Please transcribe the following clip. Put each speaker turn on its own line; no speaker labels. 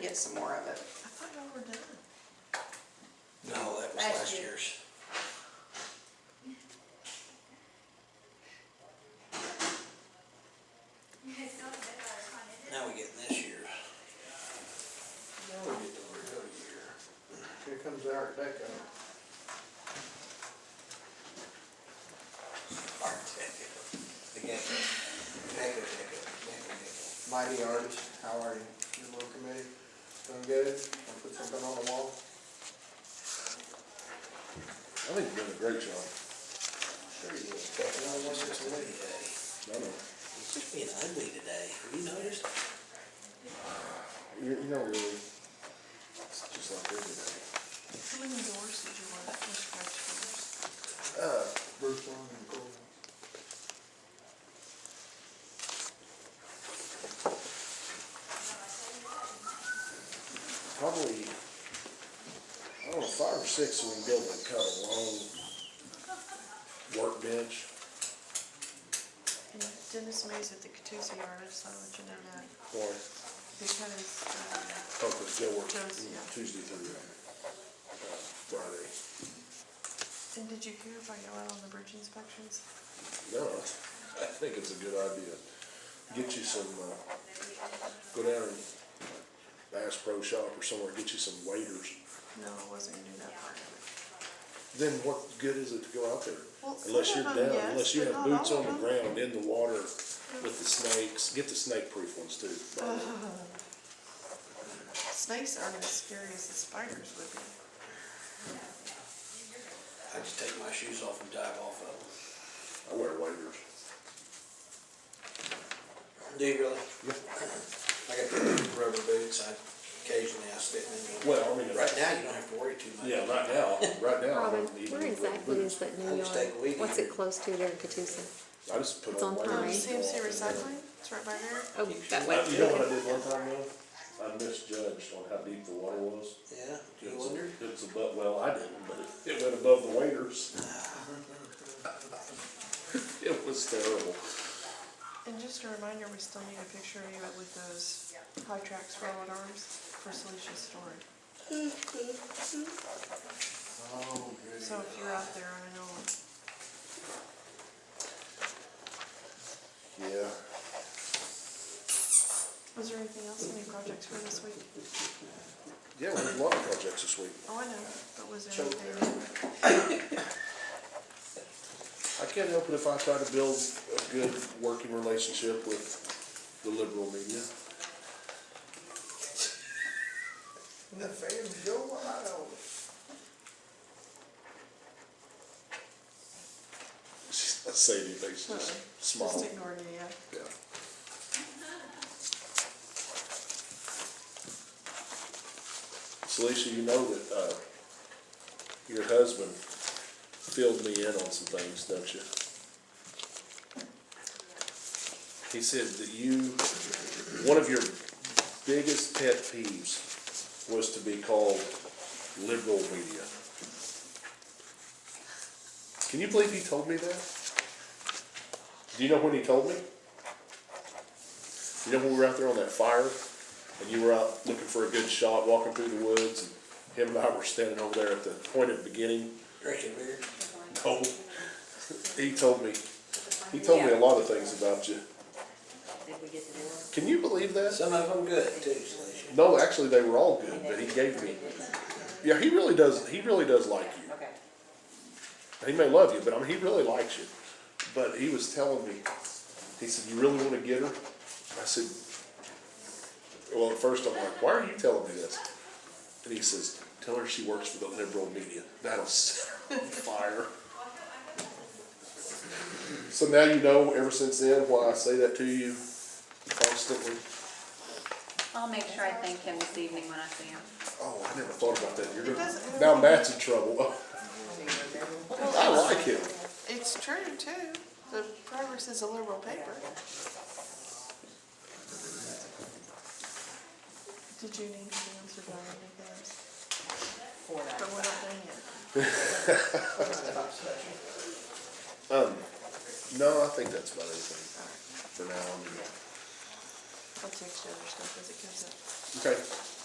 do some more of it. I thought y'all were done.
No, that was
Last
last
year.
year's. Now we get this year's. Now we get the real year.
Here comes Art Deco.
Art Deco. The gecko. Deco, deco, deco, deco.
Mighty artist, how are you? Your little committee, doing good? Wanna put something on the wall?
I think you're doing a great job.
Sure you will. Deco, it's just a windy day.
I know.
It's just being ugly today. Have you noticed?
You, you know, really, it's just like every day.
How many doors did you want, Mr. French doors?
Uh,
Bruce Long and Cole.
probably, I don't know, five or six we can build like kind of long workbench.
And Dennis Mays at the Catoosa Yard, I just wanna let you know that,
Or,
because, uh,
oh, because Joe works
Joe's, yeah.
Tuesday through uh, Friday.
and did you hear about y'all on the bridge inspections?
No, I think it's a good idea. Get you some, uh, go down and Bass Pro Shop or somewhere, get you some waders.
No, I wasn't gonna do that part of it.
Then what good is it to go out there?
Well, some
Unless you're
of
down,
'em, yes,
unless you
but
have
not
boots
all
on the
of 'em.
ground in the water with the snakes, get the snake proof ones too. by the way.
Snakes aren't as scary as the spiders would be.
I just take my shoes off and dive off of them.
I wear waders.
Do you really? I got rubber boots. I occasionally I slip in. them.
Well, I mean,
Right now, you don't have to worry too much.
Yeah, right now, right now. I
Robin,
don't need to
where
wear
exactly is
boots.
that
I'll
new
just
yard?
take a weed
What's
eater.
it close to there in Catoosa?
I just put
It's
on
on
waders.
Pine.
Um,
and
CMC
walk in there.
Recycling, it's right by there.
Oh, that way.
Uh, You know what I did one time though? I misjudged on how deep the water was.
Yeah, do
It
you
was-
wonder?
It was above, well, I didn't, but it, it went above the waders. It was terrible.
And just a reminder, we still need a picture of you with those high tracks rolled arms for Salisha storage.
Oh, good.
So if you're out there, I know,
Yeah.
was there anything else, any projects for this week?
Yeah, we had a lot of projects this week.
Oh, I know, but was there
Choke
anything?
I can't help it if I try to build a good working relationship with the liberal media.
And the fans go wild.
She's not saying anything, she's
Uh-uh.
just
Just
smiling.
ignored it, yeah.
Yeah. Salisha, you know that, uh, your husband filled me in on some things, don't you? He said that you, one of your biggest pet peeves was to be called liberal media. Can you believe he told me that? Do you know when he told me? You know when we were out there on that fire and you were out looking for a good shot, walking through the woods, and him and I were standing over there at the point of beginning?
Drinking beer.
No. He told me, he told me a lot of things about you.
Did we get to do it?
Can you believe that?
Some of them good too, Salisha.
No, actually, they were all good, but he gave me, yeah, he really does, he really does like you.
Okay.
He may love you, but I mean, he really likes you. But he was telling me, he said, "You really want to get her?" I said, "Well, at first I'm like, why are you telling me this?" And he says, "Tell her she works for the liberal media. That'll set her on fire." so now you know. Ever since then, why I say that to you constantly.
I'll make sure I thank him this evening when I see him.
Oh, I never thought about that. You're
It
gonna,
doesn't-
now Matt's in trouble. I like him.
It's true too, the Progress is a liberal paper. Did you need to answer by anything else?
For that.
But we're not done yet.
No, I think that's about everything for now. I mean,
I'll text you other stuff as it comes up.
Okay.